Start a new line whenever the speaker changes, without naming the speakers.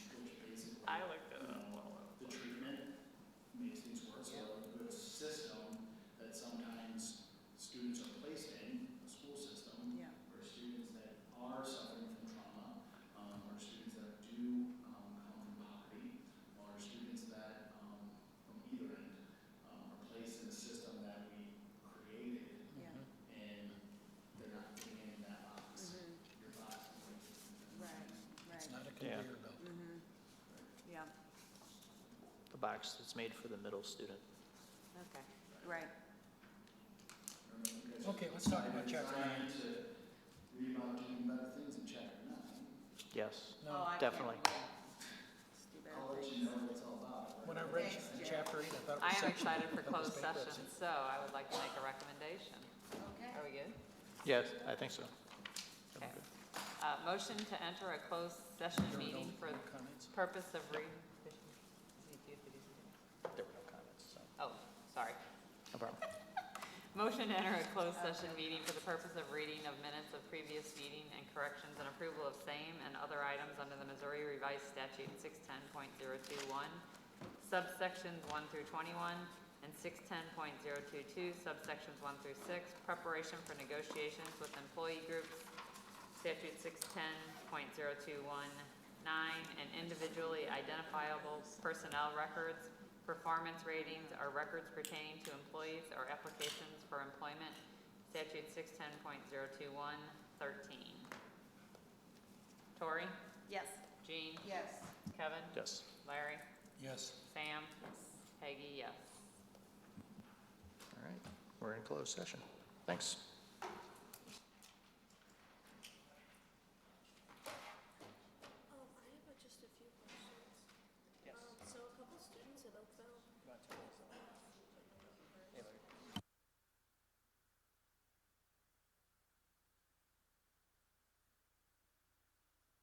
Mm-hmm.
Mm-hmm.
box that's made for the middle student.
Okay, right.
Okay, let's talk about chapter nine.
Remounting better things in chapter nine.
Yes,
Oh,
No,
I can't
definitely.
wait. Let's do better
I'll let
things.
you know what it's all about.
when I read
Thanks, Jerry.
chapter eight, I thought
I
it was
am
section.
excited for
I thought it
closed
was
session,
bankruptcy.
so I would like to make a recommendation.
Okay.
Are we good?
Yes, I think so.
Okay. Uh, Motion to enter a closed session
There were no-
meeting for
no
the
comments.
purpose of re...
There were no comments, so.
Oh, sorry.
No problem.
Motion to enter a closed session meeting for the purpose of reading of minutes of previous meeting and corrections and approval of same and other items under the Missouri Revised Statute 610.021, subsections 1 through 21, and 610.022, subsections 1 through 6, preparation for negotiations with employee groups, statute 610.0219, and individually identifiable personnel records, performance ratings, or records pertaining to employees or applications for employment, statute 610.021, 13. Tori,
Yes.
Jean,
Yes.
Kevin,
Yes.
Larry,
Yes.
Sam, Peggy, yes.
All right, we're in closed session. Thanks.